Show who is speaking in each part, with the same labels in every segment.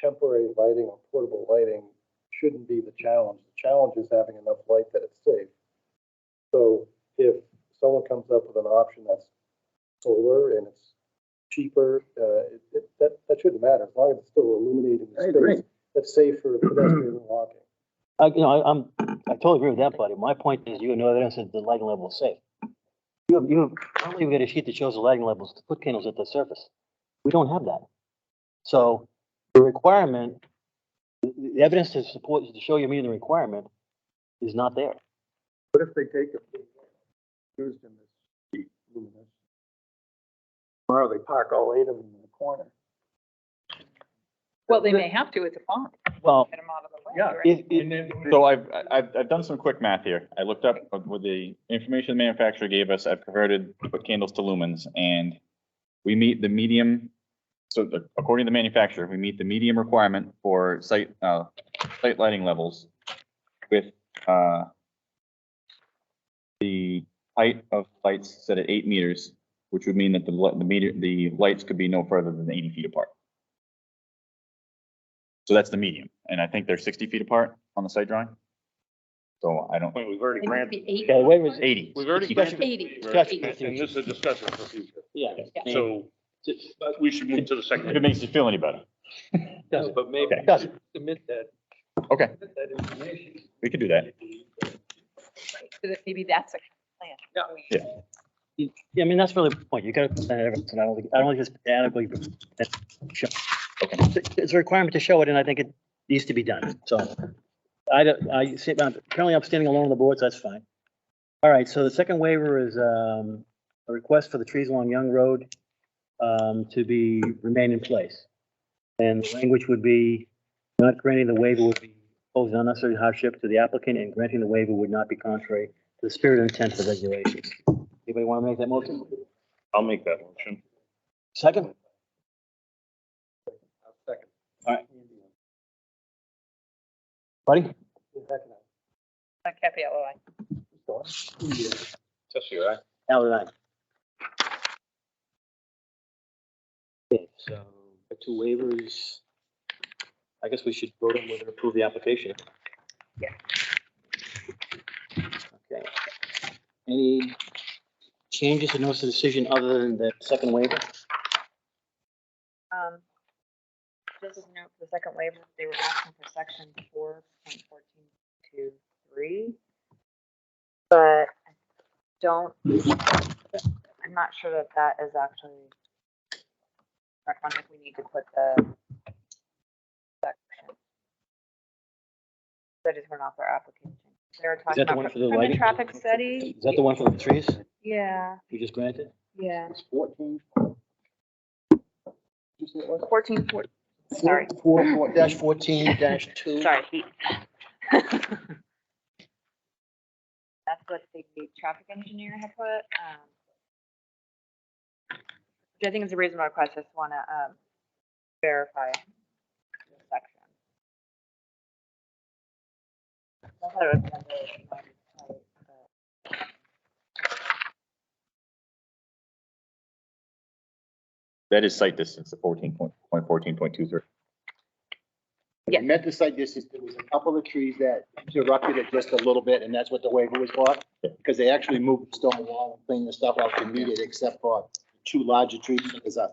Speaker 1: temporary lighting or portable lighting shouldn't be the challenge. The challenge is having enough light that it's safe. So if someone comes up with an option that's solar and it's cheaper, uh, it, it, that, that shouldn't matter, as long as it's still illuminating
Speaker 2: I
Speaker 1: the
Speaker 2: agree.
Speaker 1: space. That's safe for pedestrian and walking.
Speaker 3: I, you know, I, I'm, I totally agree with that, buddy. My point is you have no evidence that the lighting level is safe. You have, you have, I don't even get a sheet that shows the lighting levels, to put candles at the surface. We don't have that. So the requirement, the, the evidence to support, to show you're meeting the requirement is not there.
Speaker 1: What if they take it, used in this cheap luminous?
Speaker 2: Tomorrow they park all eight of them in the corner.
Speaker 4: Well, they may have to at the farm,
Speaker 3: Well,
Speaker 4: get them out of the way.
Speaker 5: Yeah.
Speaker 4: right?
Speaker 3: if, if,
Speaker 5: And then-
Speaker 6: So I've, I- I've, I've done some quick math here. I looked up with the information the manufacturer gave us, I've converted candles to lumens and we meet the medium, so the- according to the manufacturer, we meet the medium requirement for site, uh, site lighting levels with, uh, the height of lights set at eight meters, which would mean that the, li- the meter, the lights could be no further than eighty feet apart. So that's the medium, and I think they're sixty feet apart on the site drawing. So I don't,
Speaker 7: Wait, we've
Speaker 4: It
Speaker 7: already
Speaker 4: might
Speaker 7: granted,
Speaker 4: be eight.
Speaker 3: yeah, the way it was,
Speaker 6: eighty.
Speaker 7: we've already
Speaker 3: Discussion.
Speaker 7: granted.
Speaker 4: Eighty.
Speaker 3: Discussion.
Speaker 7: And and this is a discussion for future.
Speaker 3: yeah.
Speaker 7: So we should move to the
Speaker 6: If it
Speaker 7: second.
Speaker 6: makes you feel any better.
Speaker 5: No, But maybe
Speaker 3: It doesn't.
Speaker 5: submit that,
Speaker 6: Okay,
Speaker 5: that information.
Speaker 6: we could do that.
Speaker 4: So that Maybe that's a plan.
Speaker 6: Yeah.
Speaker 3: Yeah, I mean, that's really the point. You gotta present evidence, and I don't think, I don't think it's adequately. that's show- It's a requirement to show it, and I think it needs to be done, so. I don't, I see, I'm- apparently I'm standing alone on the board, so that's fine. All right, so the second waiver is, um, a request for the trees along Young Road, um, to be, remain in place. And the language would be, not granting the waiver would be, pose an unnecessary hardship to the applicant, and granting the waiver would not be contrary to the spirit and intent of the regulations. Anybody want to make that motion?
Speaker 7: I'll make that motion.
Speaker 3: Second?
Speaker 1: Second.
Speaker 3: All right. Buddy?
Speaker 4: Not Cafe LOI.
Speaker 7: Tessie, aye.
Speaker 3: Al and I. Okay, so the two waivers. I guess we should vote on whether to approve the application.
Speaker 4: Yeah.
Speaker 3: Okay. Any changes to notice of decision other than the second waiver?
Speaker 4: Um, Just as a note, for the second waiver, they were asking for section four point fourteen two three. But I don't, I'm not sure that that is actually. I don't think we need to put the section. That is we're not their application. They were
Speaker 3: Is
Speaker 4: talking
Speaker 3: that the one
Speaker 4: about
Speaker 3: for the
Speaker 4: from the
Speaker 3: lighting?
Speaker 4: traffic study.
Speaker 3: Is that the one for the trees
Speaker 4: Yeah,
Speaker 3: you just granted?
Speaker 4: yeah.
Speaker 2: It's fourteen.
Speaker 4: Fourteen four, sorry.
Speaker 2: Four, four, dash fourteen, dash two.
Speaker 4: Sorry, heat. That's what the traffic engineer had put, um. Which I think is a reasonable request, I just wanna, um, verify the section. I thought it was under, um, uh,
Speaker 6: That is site distance, the fourteen point, point fourteen point two three.
Speaker 4: Yeah.
Speaker 2: Meant to cite this is, there was a couple of trees that interrupted it just a little bit, and that's what the waiver was for. Because they actually moved the stone wall and cleaned the stuff out to meet it, except for two larger trees. There's a,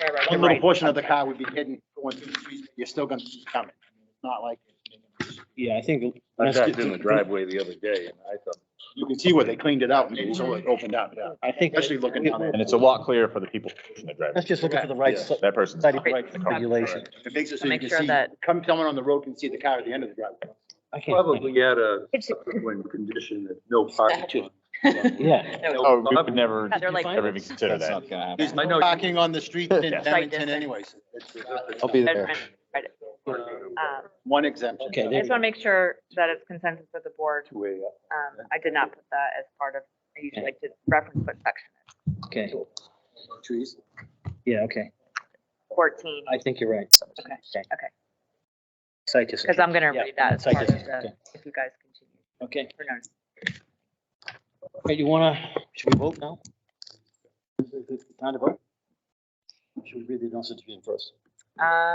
Speaker 4: Right, right,
Speaker 2: one
Speaker 4: right.
Speaker 2: little portion of the car would be hidden going through the trees. You're still gonna see it coming. It's not like.
Speaker 3: Yeah, I think.
Speaker 7: I sat in the driveway the other day and I thought,
Speaker 2: You can see where they cleaned it out and it's all opened up, Mm-hmm. yeah.
Speaker 3: I think.
Speaker 2: Especially looking down there.
Speaker 6: And it's a lot clearer for the people in the driveway.
Speaker 3: Let's just look for the right,
Speaker 2: Yeah.
Speaker 3: si-
Speaker 6: That person's.
Speaker 3: site of right regulation.
Speaker 2: It makes it so
Speaker 4: To
Speaker 2: you
Speaker 4: make
Speaker 2: can
Speaker 4: sure
Speaker 2: see,
Speaker 4: that-
Speaker 2: come, someone on the road can see the car at the end of the driveway.
Speaker 3: I can't. find it.
Speaker 5: Probably add a
Speaker 4: It's-
Speaker 5: subsequent condition that no parking.
Speaker 3: Yeah.
Speaker 6: Oh, we would never,
Speaker 4: They're like-
Speaker 6: never even consider
Speaker 8: That's
Speaker 6: that.
Speaker 8: not gonna happen.
Speaker 2: There's
Speaker 5: I
Speaker 2: no
Speaker 5: know.
Speaker 2: parking on the street in
Speaker 6: Yeah.
Speaker 2: Abington
Speaker 4: distance.
Speaker 2: anyways. It's-
Speaker 8: I'll be there.
Speaker 4: Measurement, right. Um,
Speaker 2: One exemption.
Speaker 3: Okay,
Speaker 4: I
Speaker 3: there
Speaker 4: just wanna make sure that it's consensus with the board, um, I did not put that as part of, I usually like to reference what section, it's
Speaker 3: Okay,
Speaker 2: Trees.
Speaker 3: yeah, okay.
Speaker 4: fourteen.
Speaker 3: I think you're right.
Speaker 4: Okay, okay.
Speaker 3: Site distance.
Speaker 4: Because I'm gonna
Speaker 3: Yeah,
Speaker 4: read that as
Speaker 3: site
Speaker 4: part of
Speaker 3: distance,
Speaker 4: the, if you guys continue.
Speaker 3: Okay,
Speaker 4: or no,
Speaker 3: okay, you wanna, should we vote now? Is it Time to vote? Should we read the notice of decision first?
Speaker 4: Uh,